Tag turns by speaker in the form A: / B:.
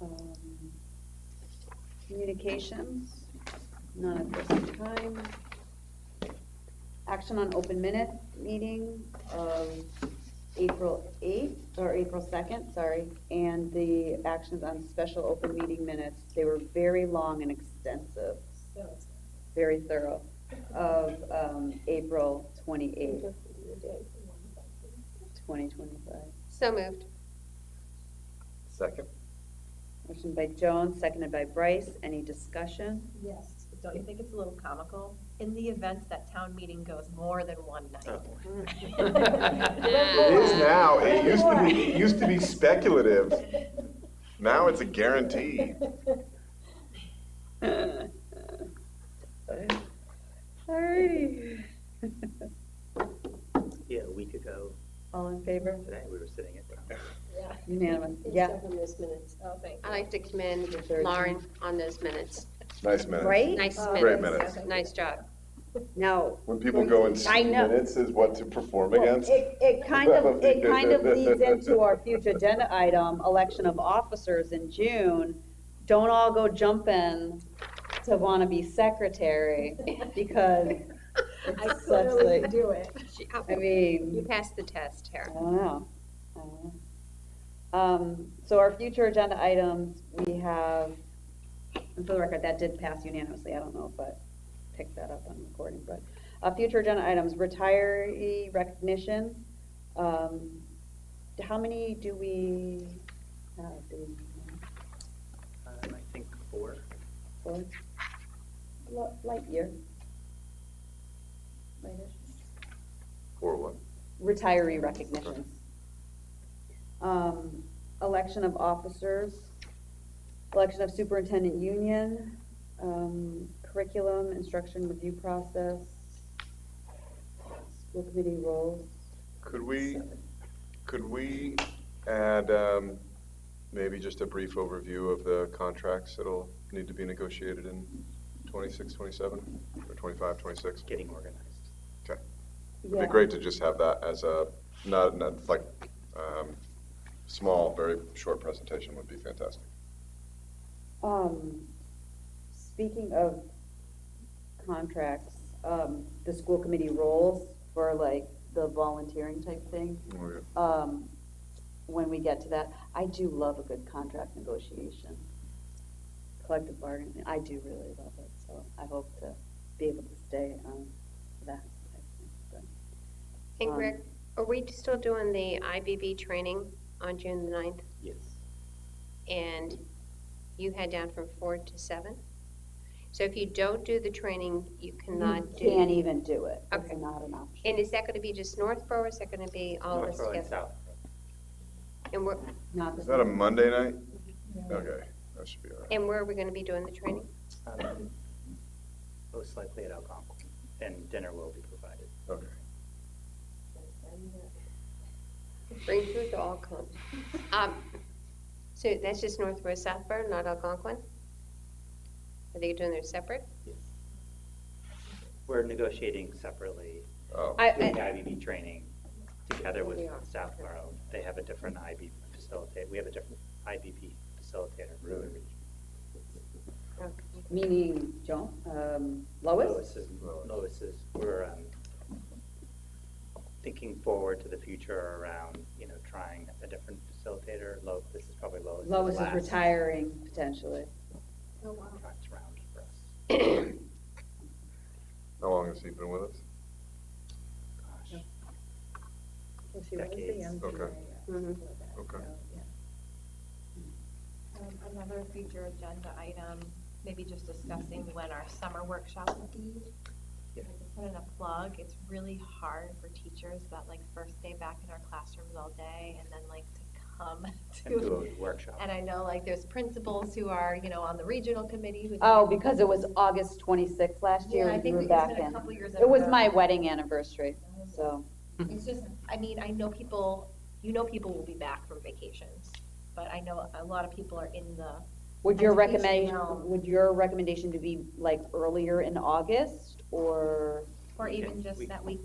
A: Um, Communications, none at this time. Action on open minute meeting of April 8th, or April 2nd, sorry, and the actions on special open meeting minutes. They were very long and extensive, very thorough, of um, April 28th, 2025.
B: So moved.
C: Second.
A: Motion by Jones, seconded by Bryce. Any discussion?
D: Yes, but don't you think it's a little comical? In the event that town meeting goes more than one night.
C: It is now, it used to be, it used to be speculative, now it's a guarantee.
A: Alrighty.
E: Yeah, a week ago
A: All in favor?
E: today, we were sitting at the
A: Unanimous, yeah.
D: Oh, thank
B: I'd like to commend Lauren on those minutes.
C: Nice minutes.
A: Right?
B: Nice minutes.
C: Great minutes.
B: Nice job.
A: Now,
C: When people go and
A: I
C: see
A: know.
C: minutes is what to perform
A: well,
C: against.
A: it, it kind of, it kind of leads into our future agenda item, election of officers in June. Don't all go jumping to wanna be secretary, because it's such like,
D: do it.
B: She-
A: I
B: You Um,
A: mean,
B: passed the test,
A: I
B: Tara.
A: don't know. I don't know. Um, so our future agenda items, we have, and for the record, that did pass unanimously, I don't know if I picked that up on recording, but, uh, future agenda items, retiree recognition, um, how many do we have, do we,
E: um, I think four.
A: four? Li- Light year? Lightish?
C: Or what?
A: retiree recognitions. Um, Election of officers, election of superintendent union, um, curriculum, instruction review process, school committee roles.
C: Could we, could we add, um, maybe just a brief overview of the contracts that'll need to be negotiated in 26, 27, or 25, 26?
E: getting organized.
C: Okay. It'd
A: Yeah.
C: be great to just have that as a, not, not like, um, small, very short presentation would be fantastic.
A: Um, Speaking of contracts, um, the school committee roles for like the volunteering type thing. um, when we get to that. I do love a good contract negotiation, collective bargaining. I do really love it, so I hope to be able to stay on that. type of thing.
B: And
A: Um,
B: Greg, are we still doing the IBB training on June the 9th?
E: Yes.
B: And you had down from 4 to 7? So if you don't do the training, you e- cannot do.
A: Can't even do it. It's
B: Okay.
A: not an option.
B: And is that going to be just Northborough, or is that going to be all of us
E: Northborough and
B: together?
E: Southborough.
B: And where,
A: Not
C: Is
A: this
C: that a
A: one.
C: Monday night? Okay, that should be all right.
B: and where are we going to be doing the training?
E: Um, Most likely at Algonquin, and dinner will be provided.
C: Okay.
B: Bring food to all come. Um, So that's just Northborough, Southborough, not Algonquin? Are they doing their separate?
E: Yes. We're negotiating separately
C: Oh,
A: I-
E: the
A: I-
E: IBB training together with
B: We are.
E: Southborough. They have a different IB facilitator, we have a different IBB facilitator for the
C: Really?
E: region.
B: Okay.
A: Meaning, Joan, um, Lois?
E: Lois is, Lois is, we're um, thinking forward to the future around, you know, trying a different facilitator. Lo, this is probably Lois.
A: Lois is retiring potentially.
D: Oh,
E: Contract round for us.
C: how long has he been with us?
E: Gosh. Decades.
C: Okay.
B: Mhm.
C: Okay.
A: Oh.
D: Um, Another future agenda item, maybe just discussing when our summer workshop will be.
E: Yeah.
D: If I could Put in a plug, it's really hard for teachers that like first day back in our classrooms all day and then like to come
E: And
D: to.
E: do a workshop.
D: And I know like there's principals who are, you know, on the regional committee who.
A: Oh, because it was August 26th last year
D: Yeah, I
A: and you
D: think
A: were
D: it's been
A: back
D: a
A: in.
D: couple uh, years. in a
A: It was
D: row.
A: my wedding anniversary, so.
D: It's just, I mean, I know people, you know people will be back from vacations, but I know a lot of people are in the
A: Would your
D: Education
A: recommendation,
D: realm.
A: would your recommendation to be like earlier in August or?
D: Or even
E: Okay.
D: just
E: We-
D: that week